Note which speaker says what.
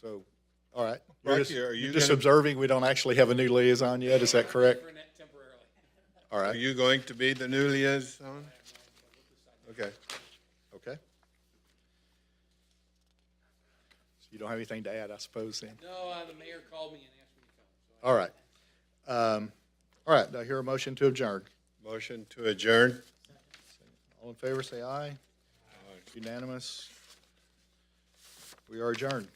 Speaker 1: So, all right. You're
Speaker 2: Rocky,
Speaker 1: just-
Speaker 2: are you
Speaker 1: You're just
Speaker 2: gonna-
Speaker 1: observing, we don't actually have a new liaison yet, is that correct?
Speaker 3: Temporarily.
Speaker 1: All
Speaker 2: Are
Speaker 1: right,
Speaker 2: you going to be the new liaison? Okay.
Speaker 1: okay. So you don't have anything to add, I suppose, then?
Speaker 3: No, uh, the mayor called me and asked me to come, so
Speaker 1: All right. Um, All right, do I hear a motion to adjourn?
Speaker 2: Motion to adjourn.
Speaker 1: All in favor, say aye. Unanimous. We are adjourned.